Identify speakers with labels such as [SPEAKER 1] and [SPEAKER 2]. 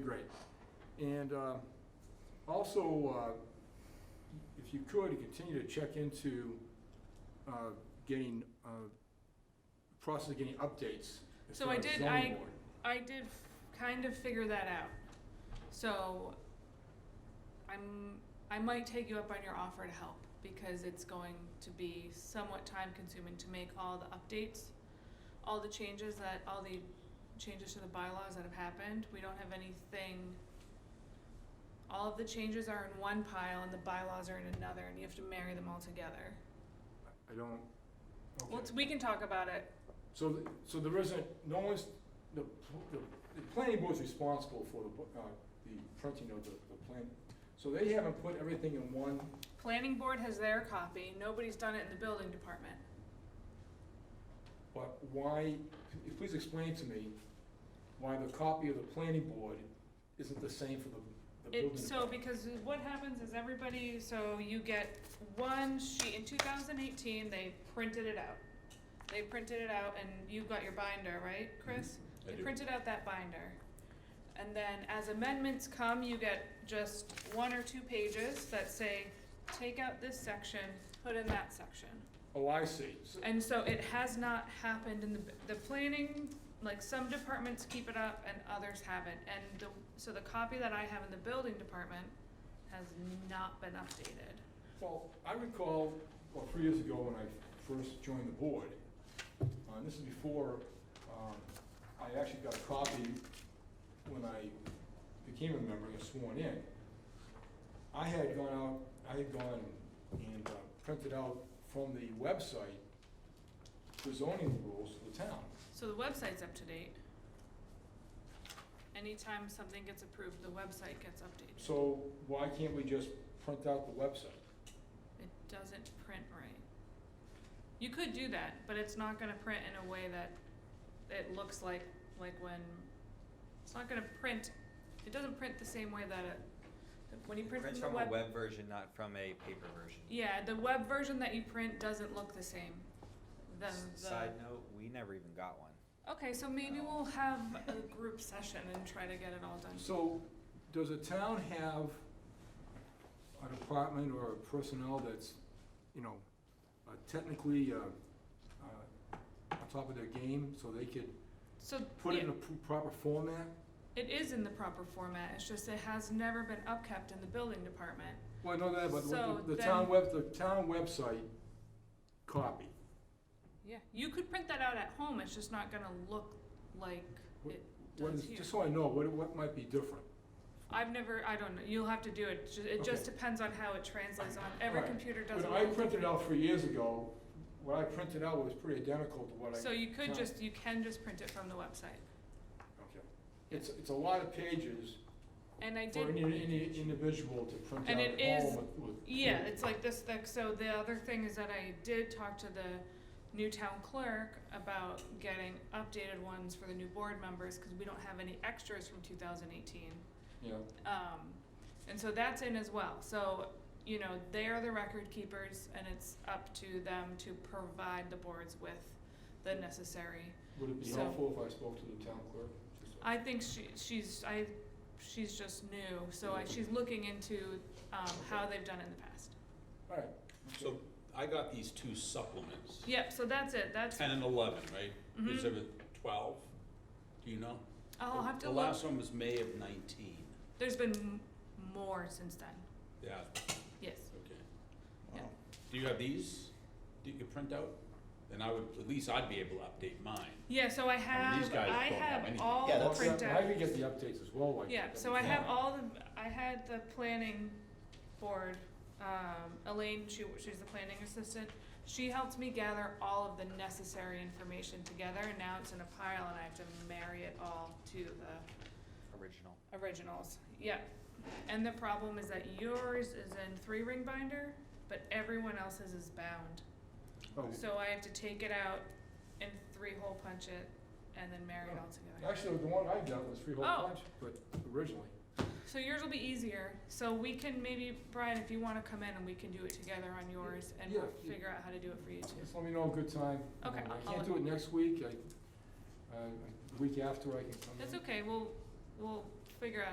[SPEAKER 1] great. And um, also, uh, if you could, continue to check into uh, getting, uh, process of getting updates. as
[SPEAKER 2] So
[SPEAKER 1] far
[SPEAKER 2] I
[SPEAKER 1] as
[SPEAKER 2] did-
[SPEAKER 1] zoning
[SPEAKER 2] I-
[SPEAKER 1] board.
[SPEAKER 2] I did f- kind of figure that out. So I'm I might take you up on your offer to help because it's going to be somewhat time consuming to make all the updates, all the changes that all the changes to the bylaws that have happened. We don't have anything all of the changes are in one pile and the bylaws are in another and you have to marry them all together.
[SPEAKER 1] I don't, okay.
[SPEAKER 2] Well, it's- we can talk about it.
[SPEAKER 1] So, th- so there isn't, no one's, the, pl- the, the planning board's responsible for the, bu- uh, the printing of the, the plan. So they haven't put everything in one,
[SPEAKER 2] Planning board has their copy. Nobody's done it in the building department.
[SPEAKER 1] but why, p- please explain to me why the copy of the planning board isn't the same for the, the building.
[SPEAKER 2] It, so because what happens is everybody, so you get one sheet, in two thousand eighteen, they printed it out. They printed it out and you got your binder, right, Chris?
[SPEAKER 3] Mm-hmm. I
[SPEAKER 2] They
[SPEAKER 3] do.
[SPEAKER 2] printed out that binder. And then as amendments come, you get just one or two pages that say, take out this section, put in that section.
[SPEAKER 1] Oh, I see. So-
[SPEAKER 2] And so it has not happened in the, the planning, like some departments keep it up and others haven't. And the, so the copy that I have in the building department has not been updated.
[SPEAKER 1] Well, I recall, well, three years ago when I first joined the board, uh, and this is before, um, I actually got a copy when I became a member and was sworn in. I had gone out, I had gone and uh, printed out from the website the zoning rules of the town.
[SPEAKER 2] So the website's up to date. Anytime something gets approved, the website gets updated.
[SPEAKER 1] So why can't we just print out the website?
[SPEAKER 2] It doesn't print right. You could do that, but it's not gonna print in a way that it looks like, like when, it's not gonna print, it doesn't print the same way that it, that when you print from the web.
[SPEAKER 3] a web version, not from a paper version.
[SPEAKER 2] Yeah, the web version that you print doesn't look the same than
[SPEAKER 3] S-
[SPEAKER 2] the.
[SPEAKER 3] Side note, we never even got one.
[SPEAKER 2] Okay, so maybe we'll have a group session and try to get it all done.
[SPEAKER 1] So, does a town have a department or a personnel that's, you know, uh, technically, uh, uh, on top of their game, so they could
[SPEAKER 2] So,
[SPEAKER 1] put it in
[SPEAKER 2] yeah,
[SPEAKER 1] a p- proper format?
[SPEAKER 2] it is in the proper format, it's just it has never been upkept in the building department.
[SPEAKER 1] Well, I know that, but
[SPEAKER 2] So
[SPEAKER 1] the- the town
[SPEAKER 2] then-
[SPEAKER 1] web, the town website copy,
[SPEAKER 2] Yeah. You could print that out at home, it's just not gonna look like
[SPEAKER 1] What-
[SPEAKER 2] it
[SPEAKER 1] what
[SPEAKER 2] does
[SPEAKER 1] is,
[SPEAKER 2] here.
[SPEAKER 1] just so I know, what, what might be different?
[SPEAKER 2] I've never, I don't know, you'll have to do it, Ju- it just depends on how it translates on, every
[SPEAKER 1] Right.
[SPEAKER 2] computer does
[SPEAKER 1] When
[SPEAKER 2] it.
[SPEAKER 1] I
[SPEAKER 2] all
[SPEAKER 1] printed
[SPEAKER 2] different.
[SPEAKER 1] out three years ago, what I printed out was pretty identical to what I.
[SPEAKER 2] So you could
[SPEAKER 1] No.
[SPEAKER 2] just, you can just print it from the website.
[SPEAKER 1] Okay. It's, it's a lot of pages
[SPEAKER 2] And I did
[SPEAKER 1] for any, any individual to print out
[SPEAKER 2] And
[SPEAKER 1] at
[SPEAKER 2] it is-
[SPEAKER 1] home with, with.
[SPEAKER 2] Yeah, it's like this thick, so the other thing is that I did talk to the new town clerk about getting updated ones for the new board members, cause we don't have any extras from two thousand eighteen.
[SPEAKER 1] Yeah,
[SPEAKER 2] Um, and so that's in as well, so, you know, they are the record keepers and it's up to them to provide the boards with the necessary.
[SPEAKER 1] would it be
[SPEAKER 2] So-
[SPEAKER 1] helpful if I spoke to the town clerk? Just-
[SPEAKER 2] I think she, she's, I, she's just new, so I, she's looking into, um, how they've done it in the past.
[SPEAKER 1] All right.
[SPEAKER 4] So I got these two supplements,
[SPEAKER 2] Yep, so that's it, that's.
[SPEAKER 4] ten and eleven, right? Is
[SPEAKER 2] mhm.
[SPEAKER 4] there a twelve? Do you know?
[SPEAKER 2] I'll have to
[SPEAKER 4] The
[SPEAKER 2] look.
[SPEAKER 4] last one was May of nineteen.
[SPEAKER 2] There's been m- more since then.
[SPEAKER 4] Yeah,
[SPEAKER 2] Yes.
[SPEAKER 4] okay.
[SPEAKER 2] Yeah.
[SPEAKER 4] Do you have these? Do you print out? Then I would, at least I'd be able to update mine.
[SPEAKER 2] Yeah, so I
[SPEAKER 4] these
[SPEAKER 2] have,
[SPEAKER 4] guys
[SPEAKER 2] I
[SPEAKER 4] don't have
[SPEAKER 2] have
[SPEAKER 4] anything.
[SPEAKER 2] all
[SPEAKER 3] Yeah,
[SPEAKER 2] the
[SPEAKER 3] that's-
[SPEAKER 2] printouts.
[SPEAKER 1] I could get the updates as well, like.
[SPEAKER 2] Yeah, so I have all the, I had the planning board, um, Elaine, she, she's the planning assistant. She helped me gather all of the necessary information together and now it's in a pile and I have to marry it all to the
[SPEAKER 3] Original.
[SPEAKER 2] originals. Yeah. And the problem is that yours is in three ring binder, but everyone else's is bound.
[SPEAKER 1] Oh,
[SPEAKER 2] So I have to take it out and three hole punch it and then marry it all together.
[SPEAKER 1] Actually, the one I got was three whole
[SPEAKER 2] Oh.
[SPEAKER 1] bunch, but originally.
[SPEAKER 2] So yours will be easier. So we can maybe, Brian, if you wanna come in and we can do it together on yours and we'll
[SPEAKER 1] Yeah, yeah.
[SPEAKER 2] figure out how to do it for you too.
[SPEAKER 1] Just let me know a good time.
[SPEAKER 2] Okay,
[SPEAKER 1] Um,
[SPEAKER 2] I'll-
[SPEAKER 1] I can't
[SPEAKER 2] I'll-
[SPEAKER 1] do it next week, I, uh, the week after I can come in.
[SPEAKER 2] That's okay, we'll, we'll figure out